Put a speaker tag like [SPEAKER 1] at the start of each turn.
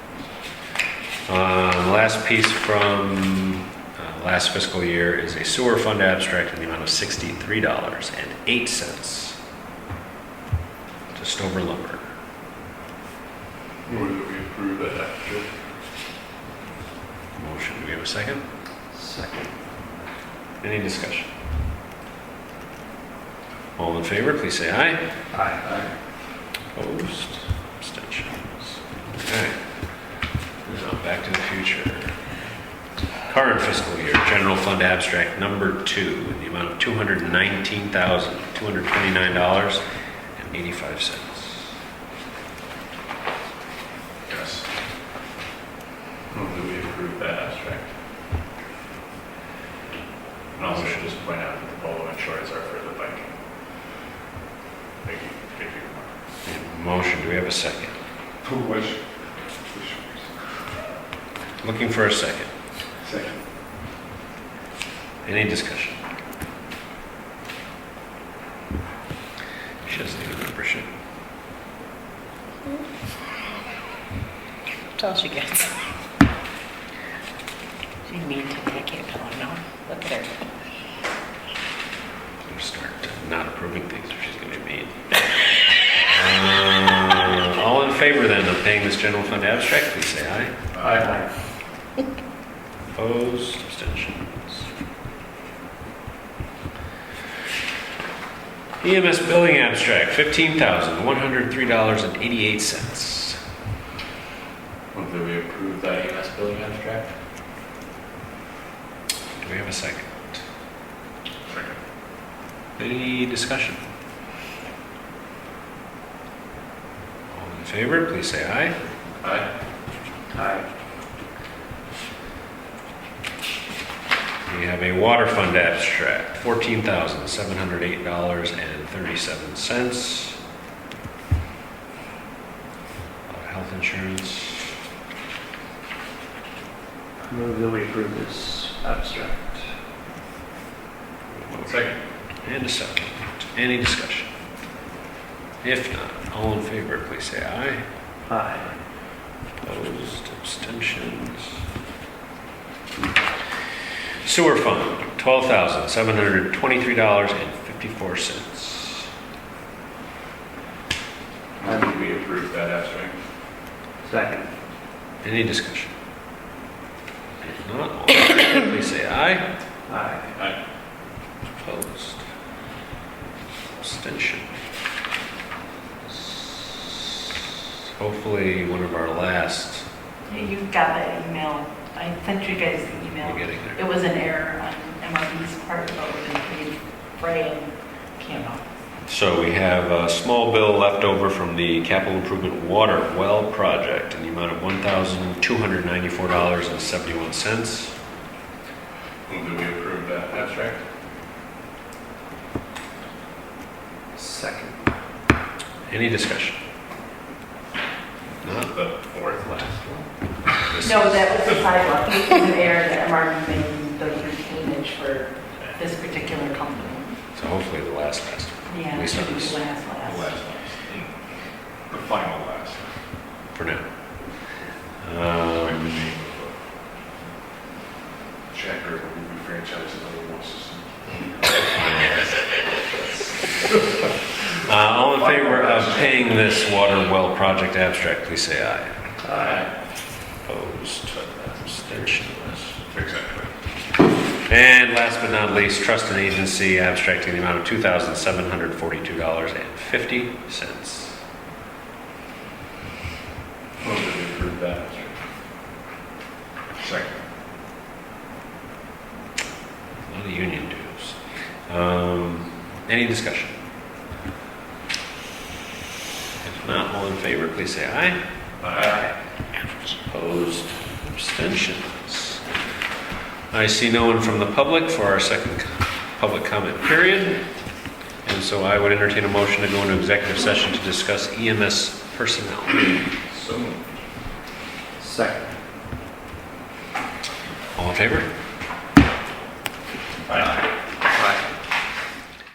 [SPEAKER 1] Um, Last piece from uh, last fiscal year is a sewer fund abstract in the amount of $63.08 to Stover lumber.
[SPEAKER 2] Move that we approve that action.
[SPEAKER 1] Motion, do we have a second?
[SPEAKER 3] Second.
[SPEAKER 1] Any discussion? All in favor, please say aye.
[SPEAKER 3] Aye.
[SPEAKER 1] Opposed? Abstentions? Okay. Now, Back to the Future. Current fiscal year, general fund abstract number two, in the amount of $219,229.85.
[SPEAKER 2] Yes. Move that we approve that abstract. And also should just point out that the polo and shorts are for the biking. Thank you, thank you.
[SPEAKER 1] Motion, do we have a second?
[SPEAKER 3] Who was?
[SPEAKER 1] Looking for a second.
[SPEAKER 3] Second.
[SPEAKER 1] Any discussion? She doesn't even remember shit.
[SPEAKER 4] That's all she gets. She mean to take it, oh no, look at her.
[SPEAKER 1] Gonna start not approving things or she's gonna be mean. Uh, All in favor then of paying this general fund abstract, please say aye.
[SPEAKER 2] Aye.
[SPEAKER 1] Opposed, abstentions. EMS E billing abstract, fifteen thousand, one hundred three dollars and eighty-eight cents.
[SPEAKER 2] Move that we approve that EMS billing abstract.
[SPEAKER 1] Do we have a second?
[SPEAKER 2] Second.
[SPEAKER 1] Any discussion? All in favor, please say aye.
[SPEAKER 2] Aye.
[SPEAKER 3] Aye.
[SPEAKER 1] We have a water fund abstract, fourteen thousand, seven hundred eight dollars and thirty-seven cents. Health insurance,
[SPEAKER 3] Move that we approve this abstract.
[SPEAKER 2] Second.
[SPEAKER 1] and a second. Any discussion? If not, all in favor, please say aye.
[SPEAKER 3] Aye.
[SPEAKER 1] Opposed, abstentions. Sewer fund, twelve thousand, seven hundred twenty-three dollars and fifty-four cents.
[SPEAKER 2] Move that we approve that abstract.
[SPEAKER 3] Second.
[SPEAKER 1] Any discussion? If not, all in favor, please say aye.
[SPEAKER 3] Aye.
[SPEAKER 2] Aye.
[SPEAKER 1] Opposed? Abstention? Hopefully, one of our last,
[SPEAKER 5] You got that email. I sent you guys the
[SPEAKER 1] you're
[SPEAKER 5] email.
[SPEAKER 1] getting there.
[SPEAKER 5] It was an error on MRB's part, but we didn't read Bray and Campbell.
[SPEAKER 1] So we have a small bill left over from the capital improvement water well project in the amount of $1,294.71.
[SPEAKER 2] Move that we approve that abstract.
[SPEAKER 3] Second.
[SPEAKER 1] Any discussion? If Not
[SPEAKER 2] The fourth last.
[SPEAKER 1] this
[SPEAKER 5] No,
[SPEAKER 1] is-
[SPEAKER 5] that was the sidewalk. It was an error that MRB made the retainage for this particular company.
[SPEAKER 1] So hopefully, the last, last.
[SPEAKER 5] Yeah,
[SPEAKER 1] We
[SPEAKER 5] it
[SPEAKER 1] saw
[SPEAKER 5] should be
[SPEAKER 1] this.
[SPEAKER 5] last,
[SPEAKER 2] The
[SPEAKER 5] last.
[SPEAKER 2] last last. The final last.
[SPEAKER 1] for now. Um,
[SPEAKER 2] Checker will be franchised in other ones.
[SPEAKER 1] uh, all in favor of paying this water well project abstract, please say aye.
[SPEAKER 2] Aye.
[SPEAKER 1] Opposed, abstentions.
[SPEAKER 2] Exactly.
[SPEAKER 1] And last but not least, trust and agency abstract in the amount of two thousand seven hundred forty-two dollars and fifty cents.
[SPEAKER 2] Move that we approve that abstract. Second.
[SPEAKER 1] A lot of union dues. Um, any discussion? If not, all in favor, please say aye.
[SPEAKER 2] Aye.
[SPEAKER 1] Opposed, abstentions. I see no one from the public for our second co- public comment period. And so I would entertain a motion to go into executive session to discuss EMS personnel.
[SPEAKER 2] So moved.
[SPEAKER 3] Second.
[SPEAKER 1] All in favor?
[SPEAKER 2] Aye.